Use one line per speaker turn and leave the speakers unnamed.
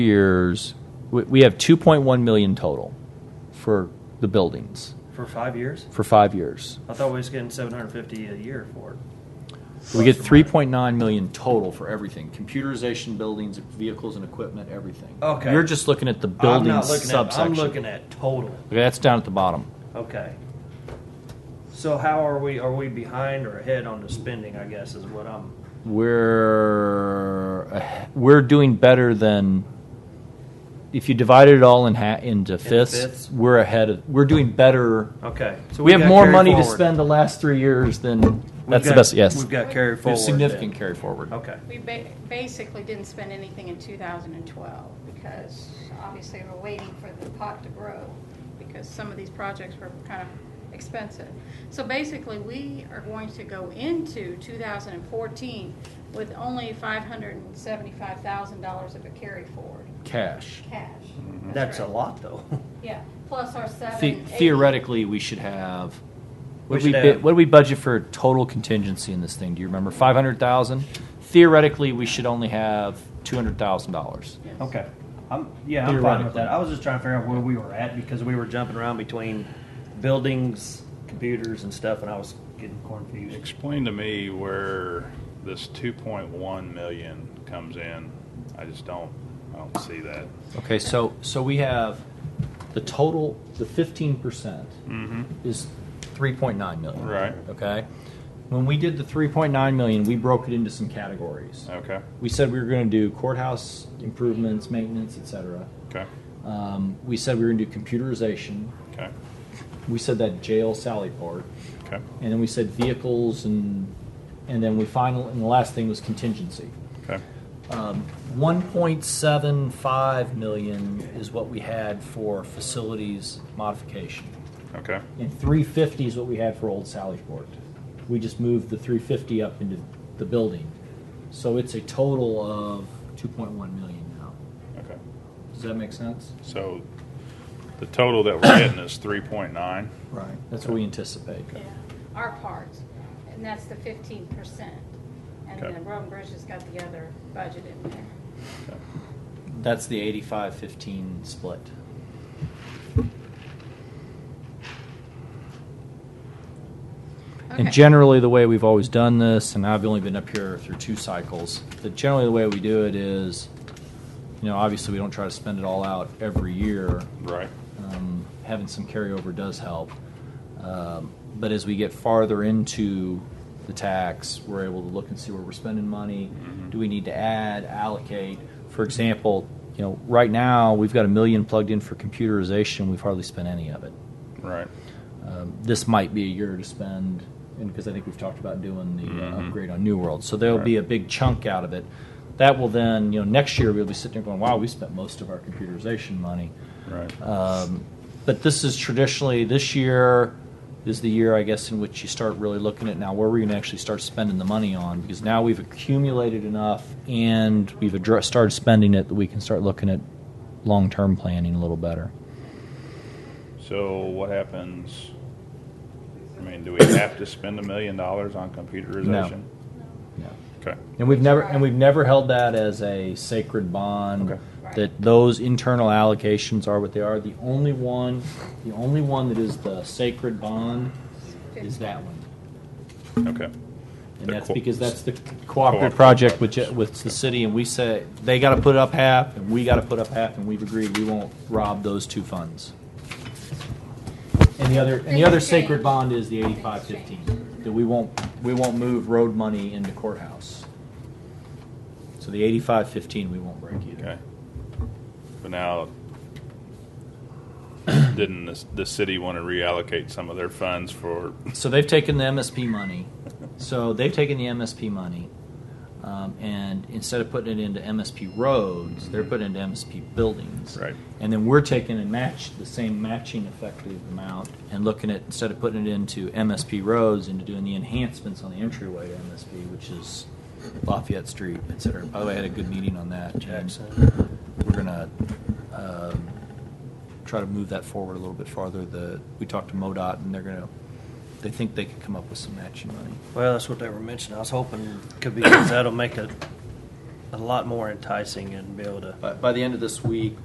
years, we, we have 2.1 million total for the buildings
For five years?
for five years.
I thought we was getting seven hundred fifty a year for it.
We get 3.9 million total for everything: computerization, buildings, vehicles, and equipment, everything.
Okay.
You're just looking at the
I'm
building
not looking at,
subsection.
I'm looking at total.
Okay, that's down at the bottom.
Okay. So how are we, are we behind or ahead on the spending, I guess, is what I'm,
we're uh, we're doing better than if you divided it all in ha- into fifths,
fifths?
We're ahead. Of, we're doing better.
okay. so
we, have
got
more
carry
money to
forward.
spend the last three years than
We've
that's the
got-
best. Yes,
We've got carry
We
forward.
have significant
then.
carry forward.
Okay.
We ba- basically didn't spend anything in 2012 because obviously we're waiting for the pot to grow because some of these projects were kind of expensive. So basically, we are going to go into 2014 with only $575,000 of a carry forward
Cash.
cash.
That's a
right.
lot, though.
Yeah, plus our
The-
780.
theoretically, we should have. What
We
we,
should
bid-
have-
what did we budget for total contingency in this thing? Do you remember? Five hundred thousand. Theoretically, we should only have two hundred thousand dollars.
Yes.
Okay. I'm, yeah, I'm fine with
Theoretically.
that. I was just trying to figure out where we were at because we were jumping around between buildings, computers and stuff, and I was getting confused.
Explain to me where this two point one million comes in. I just don't, I don't see that.
Okay, so, so we have the total, the fifteen percent
Mm-hmm.
is three point nine million.
Right.
Okay? When we did the three point nine million, we broke it into some categories.
Okay,
We said we were gonna do courthouse improvements, maintenance, et cetera.
okay,
Um, we said we were gonna do computerization.
okay,
We said that jail Sally part.
okay,
And then we said vehicles and, and then we final, and the last thing was contingency.
okay.
Um, 1.75 million is what we had for facilities modification,
Okay.
and 350 is what we had for Old Sallyport. We just moved the 350 up into the building, so it's a total of 2.1 million now.
Okay.
Does that make sense?
So the total that we're getting is three point nine.
Right. That's what we anticipate.
Yeah, our parts, and that's the 15%. And
Okay.
then Roden Bridge has got the other budget in there.
Okay.
That's the 85-15 split. And
Okay.
generally, the way we've always done this, and I've only been up here through two cycles, that generally the way we do it is, you know, obviously we don't try to spend it all out every year.
Right.
Um, having some carryover does help. Um, but as we get farther into the tax, we're able to look and see where we're spending money. Do we need to add, allocate? For example, you know, right now we've got a million plugged in for computerization. We've hardly spent any of it.
Right.
Um, this might be a year to spend, and because I think we've talked about doing the uh,
Mhm.
upgrade on New World, so there'll be a big chunk out of it. That will then, you know, next year we'll be sitting there going, "Wow, we spent most of our computerization money."
Right.
Um, but this is traditionally this year is the year, I guess, in which you start really looking at now where we're going to actually start spending the money on because now we've accumulated enough and we've addressed, started spending it that we can start looking at long-term planning a little better.
So what happens? I mean, do we have to spend a million dollars on computerization?
Yeah.
Okay.
And we've never and we've never held that as a sacred bond.
Okay.
Right.
That those internal allocations are what they are. The only one, the only one that is the sacred bond is that one,
Okay.
and
The
that's
co-
because that's the cooperative,
Cooperative
project with
projects.
with the city, and we say they got to put up half, and we got to put up half, and we've agreed we won't rob those two funds. And the other and the
Things
other sacred
change.
bond is the
Things
eighty-five fifteen
change.
that we won't we won't move road money into courthouse. So the eighty-five fifteen we won't break either.
Okay. But now, didn't the, the city want to reallocate some of their funds for?
So they've taken the MSP money. So they've taken the MSP money, um, and instead of putting it into MSP roads, they're putting it into MSP buildings.
Right.
And then we're taking and match the same matching effective amount and looking at instead of putting it into MSP roads into doing the enhancements on the entryway to MSP, which is Lafayette Street, et cetera. By the way, I had a good meeting on that. and
Jackson.
We're gonna um, try to move that forward a little bit farther. The we talked to MoDOT and they're gonna they think they could come up with some matching money.
Well, that's what they were mentioning. I was hoping it could be, 'cause that'll make a
a lot more enticing and be able to.
By, by the end of this week,